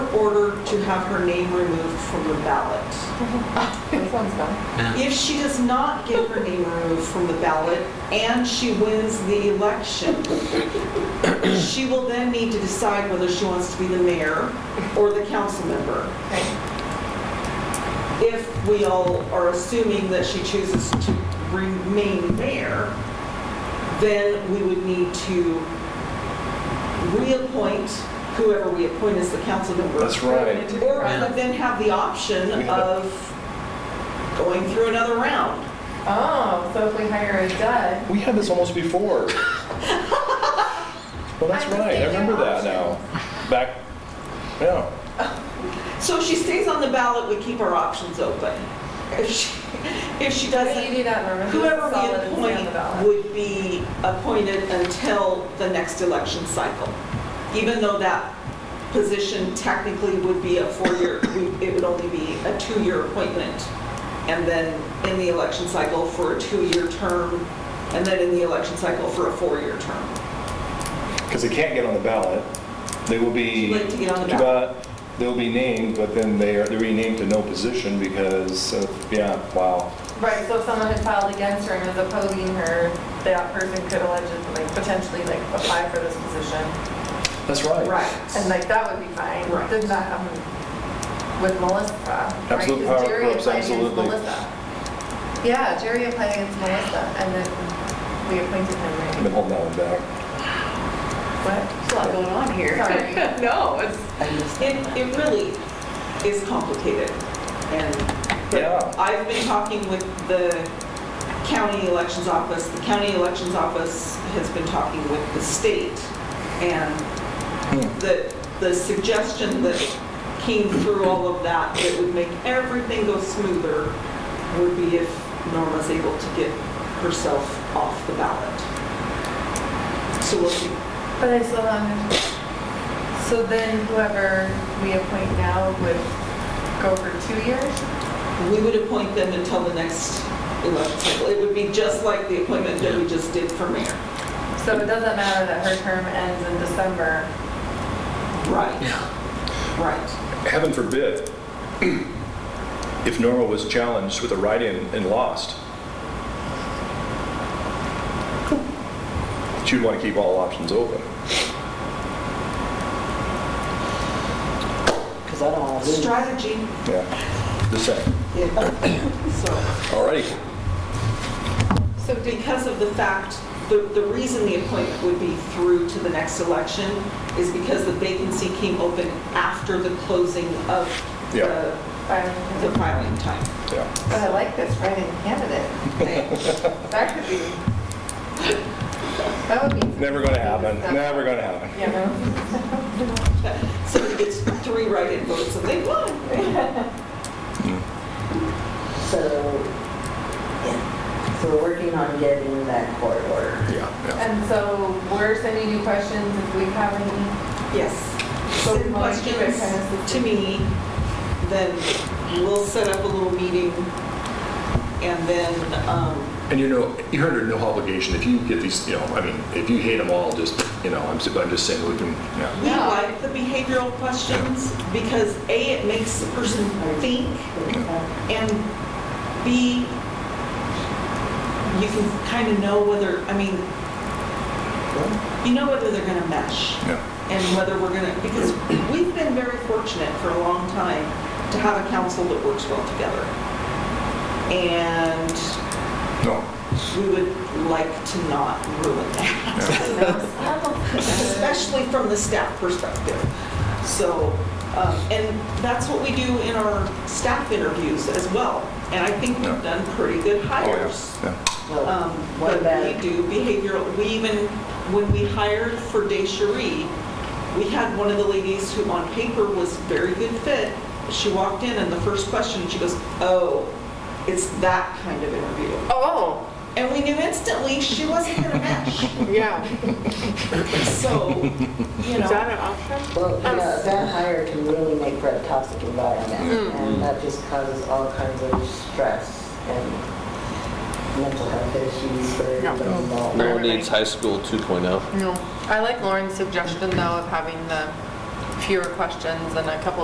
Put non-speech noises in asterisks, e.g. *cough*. to have her name removed from the ballot. Sounds fun. If she does not get her name removed from the ballot and she wins the election, she will then need to decide whether she wants to be the mayor or the council member. If we all are assuming that she chooses to remain mayor, then we would need to reappoint whoever we appoint as the council member. That's right. Or I would then have the option of going through another round. Oh, so if we hire a dud. We had this almost *laughs* before. Well, that's I was right, I thinking remember that options. now. Back, yeah. So if she stays on the ballot, we keep our options open. If she, if she How do you doesn't, do that, Norman? whoever Solid and stay we on the appoint ballot. would be appointed until the next election cycle. Even though that position technically would be a four-year, we- it would only be a two-year appointment. And then in the election cycle for a two-year term, and then in the election cycle for a four-year term. Because they can't get on the ballot. They will be. Too late to get on the too ballot. bad. They'll be named, but then they are, they're renamed to no position because, of- yeah, wow. Right, so if someone had filed against her and was opposing her, that person could allegedly, like, potentially, like, apply for this position. That's right. And like, that would be fine. Right. Did not happen with Melissa. right? 'Cause Absolute power Jerry corrupts applied against absolutely. Melissa. Yeah, Jerry applied against Melissa, and then we appointed I've him, been right? holding that one back. What? There's a lot going on here. Sorry. *laughs* No, it's. It, it really is complicated, and Yeah. but I've been talking with the county elections office. The county elections office has been talking with the state, and the, the suggestion that came through all of that, that would make everything go smoother, would be if Norma's able to get herself off the ballot. So we'll see. But I still haven't. um, So then whoever we appoint now would go for two years? We would appoint them until the next election cycle. It would be just like the appointment that we just did for mayor. So it doesn't matter that her term ends in December. Right, right. Heaven forbid, if Norma was challenged with a write-in and lost, she'd want to keep all options open. Because I don't want to lose. Strategy, Yeah, just saying. yeah. So, All righty. so because of the fact, the, the reason the appointment would be through to the next election is because the vacancy came open after the closing of Yeah. the, the But filing time. Yeah. I like this write-in candidate. That could be, that would be. Never going to happen, never going to happen. You know? So he gets three write-in votes and they won. So, yeah, so we're working on getting that court order. Yeah, yeah. And so we're sending you questions if we have any. *laughs* Yes. So Send Molly, you can kind of questions assist to me, then we'll set up a little meeting, and then, um, And you know, you're under no obligation if you get these, you know, I mean, if you hate them all, just, you know, I'm, s- I'm just saying we can, yeah. we Yeah. like the behavioral questions, because A, it makes the person think, and B, you can kind of know whether, I mean, you know whether they're gonna mesh. Yeah. and whether we're going to, because we've been very fortunate for a long time to have a council that works well together. And No, we would like to not ruin that, *laughs* especially from the staff perspective. So, um, and that's what we do in our staff interviews as well. And I think we've done pretty good Oh, hires. yeah. Well, Um, what But about, we do behavioral, we even, when we hired for Descheree, we had one of the ladies who on paper was very good fit. She walked in and the first question, she goes, oh, it's that kind of interview. Oh, And we knew instantly she wasn't going to match. yeah. So, you Is know, that an option? well, Oh, yeah, that hire can really make for a toxic Mm. environment, and that just causes all kinds of stress and mental health issues for everybody involved. No Everybody. needs high school oh. 2.0. No. I like Lauren's suggestion though of having the fewer questions and a couple